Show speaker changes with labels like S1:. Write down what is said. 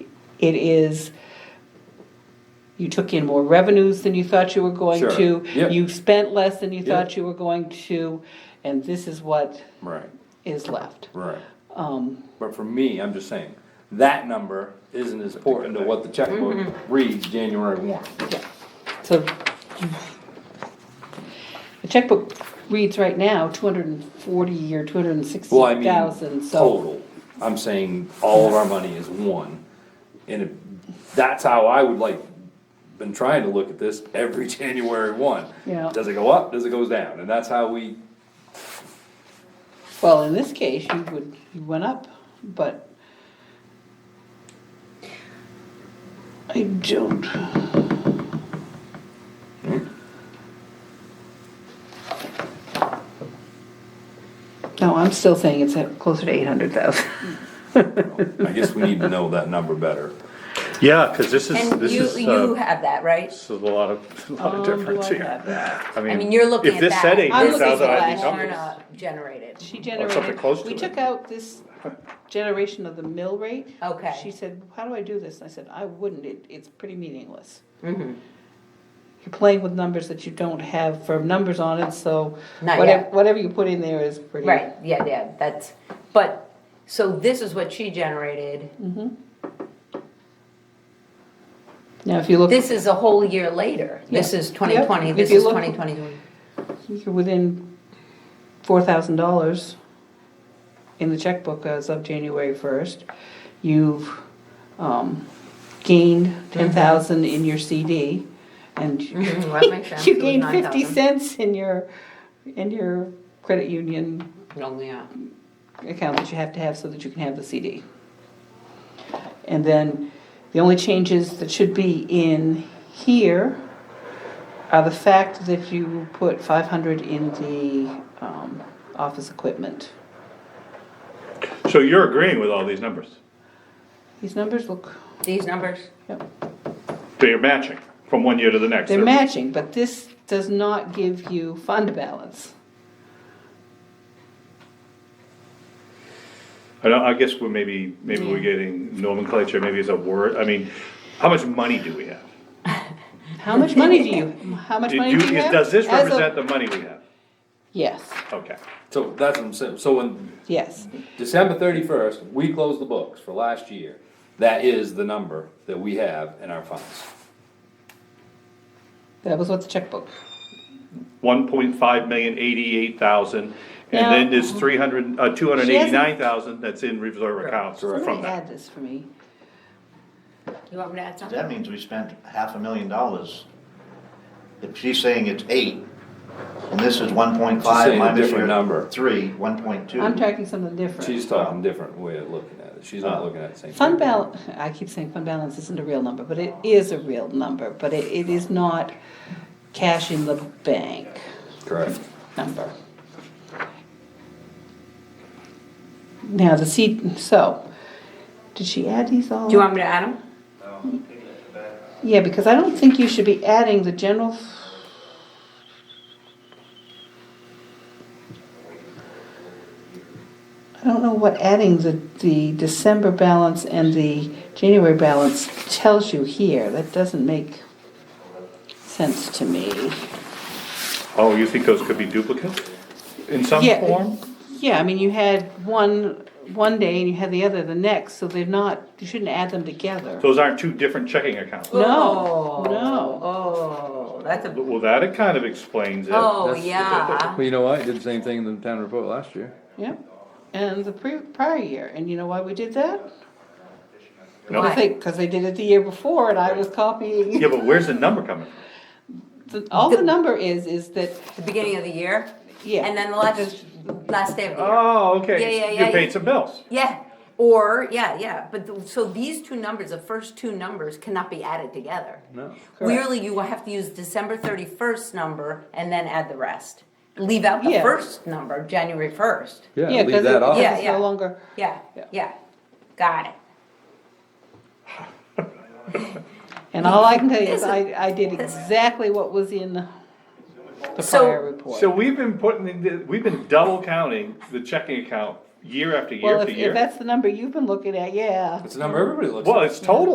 S1: It is, you took in more revenues than you thought you were going
S2: Sure.
S1: to.
S2: Yeah.
S1: You spent less than you
S2: Yeah.
S1: thought you were going to, and this is what
S2: Right,
S1: is left.
S2: right.
S1: Um,
S2: But for me, I'm just saying, that number isn't as important to what the checkbook
S1: Mm-hmm.
S2: reads January one.
S1: Yeah. So the checkbook reads right now, two hundred and forty or two hundred and sixty
S2: Well, I mean,
S1: thousand, so.
S2: total. I'm saying all of our money is one. And if- that's how I would like, been trying to look at this every January one.
S1: Yeah.
S2: Does it go up? Does it go down? And that's how we,
S1: Well, in this case, you would, you went up, but I don't, Hmm. no, I'm still saying it's at closer to eight hundred thousand.
S2: I guess we need to know that number better.
S3: Yeah, cause this is,
S4: And
S3: this
S4: you,
S3: is,
S4: you
S3: uh,
S4: have that, right?
S3: this is a lot of, a lot
S1: Um,
S3: of
S1: do
S3: difference
S1: I
S3: here.
S1: have that?
S3: I
S4: I mean, you're looking
S3: If
S4: at
S3: this
S4: that.
S3: said eight
S1: I'm
S3: hundred
S1: looking at
S3: thousand, I'd
S1: that.
S3: be
S1: I'm
S3: numbers.
S4: Warrant Generated.
S1: She
S3: Or Oh, something
S1: generated,
S3: close
S1: we
S3: to
S1: took
S3: it.
S1: out this generation of the mill rate.
S4: Okay.
S1: She said, how do I do this? And I said, I wouldn't, it, it's pretty meaningless.
S4: Mm-hmm.
S1: You're playing with numbers that you don't have firm numbers on it, so
S4: Not
S1: whatever,
S4: yet.
S1: whatever you put in there is pretty.
S4: Right, yeah, yeah, that's, but, so this is what she generated.
S1: Mm-hmm. Now, if you look,
S4: This is a whole year later. This
S1: Yeah.
S4: is twenty twenty,
S1: If
S4: this
S1: you
S4: is
S1: look- Mm-hmm.
S4: twenty twenty-one.
S1: you're within four thousand dollars in the checkbook as of January first. You've, um, gained ten thousand in your CD and
S4: That makes sense.
S1: You
S4: It was
S1: gained fifty
S4: 9,000.
S1: cents in your, in your credit union
S4: Only, yeah.
S1: account that you have to have so that you can have the CD. And then the only changes that should be in here are the fact that you put five hundred in the, um, office equipment.
S3: So you're agreeing with all these numbers,
S1: These numbers look,
S4: These numbers,
S1: yep,
S3: they're matching from one year to the next.
S1: they're matching, but this does not give you fund balance.
S3: I don't, I guess we're maybe, maybe we're getting nomenclature, maybe it's a word, I mean, how much money do we have?
S1: How much money do you, how much
S3: Do-
S1: money do
S3: do-
S1: you
S3: is-
S1: have?
S3: Does this
S1: As of-
S3: represent the money we have?
S1: Yes,
S3: Okay,
S2: So that's what I'm saying. So when
S1: yes.
S2: December thirty-first, we close the books for last year, that is the number that we have in our funds.
S1: That was what the checkbook.
S3: one point five million, eighty-eight thousand, and
S1: Now-
S3: then there's three hundred, uh, two hundred and eighty-nine thousand that's in reserve accounts
S2: Correct.
S3: from
S1: Somebody
S3: that.
S1: had this for me.
S4: you want me to add
S5: That
S4: something?
S5: means we spent half a million dollars. If she's saying it's eight, and this is one point
S2: saying
S5: five
S2: a
S5: minus
S2: different
S5: your
S2: number.
S5: three, one point two.
S1: I'm talking something different.
S2: She's talking different way of looking at it. She's not looking at the same.
S1: Uh, Fund balance, I keep saying fund balance isn't a real number, but it is a real number, but it, it is not cash in the bank
S2: Correct.
S1: number. Now, the seat, so, did she add these all?
S4: Do you want me to add them?
S1: Yeah, because I don't think you should be adding the general. f- I don't know what adding the, the December balance and the January balance tells you here, that doesn't make sense to me.
S3: Oh, you think those could be duplicates in some
S1: Yeah.
S3: form?
S1: Yeah, I mean, you had one, one day and you had the other the next, so they're not, you shouldn't add them together.
S3: Those aren't two different checking accounts.
S1: No,
S4: Oh,
S1: no.
S4: Oh, that's a,
S3: Well, that it kind of explains it.
S4: oh,
S2: that's-
S4: yeah.
S2: Well, you know what? I did the same thing in the town report last year.
S1: Yep, and the pre, prior year, and you know why we did that?
S3: No.
S1: I
S4: Why?
S1: think, because they did it the year before and I was
S3: Yeah,
S1: copying.
S3: but where's the number coming from?
S1: The- All the number is, is that,
S4: The beginning of the year?
S1: Yeah.
S4: And then the last, last day of the year.
S3: Oh, okay.
S4: Yeah, yeah,
S3: You
S4: yeah,
S3: paid
S4: yeah.
S3: some bills.
S4: Yeah, or, yeah, yeah, but, th- so these two numbers, the first two numbers cannot be added together.
S2: No.
S4: Really, you will have to use December thirty-first number and then add the rest. Leave out the
S1: Yeah.
S4: first number, January first.
S1: yeah, because it- because
S4: Yeah,
S1: it's
S4: yeah.
S1: no longer,
S4: Yeah,
S1: Yeah.
S4: yeah, got it.
S1: and all I can tell you is
S4: This is-
S1: I, I did exactly what was in the the
S4: So-
S1: prior
S3: So
S1: report.
S3: we've been putting, in the- we've been double counting the checking account year after year
S1: Well,
S3: after
S1: if, if
S3: year.
S1: that's the number you've been looking at, yeah.
S2: It's the number everybody looks at.
S3: Well, it's total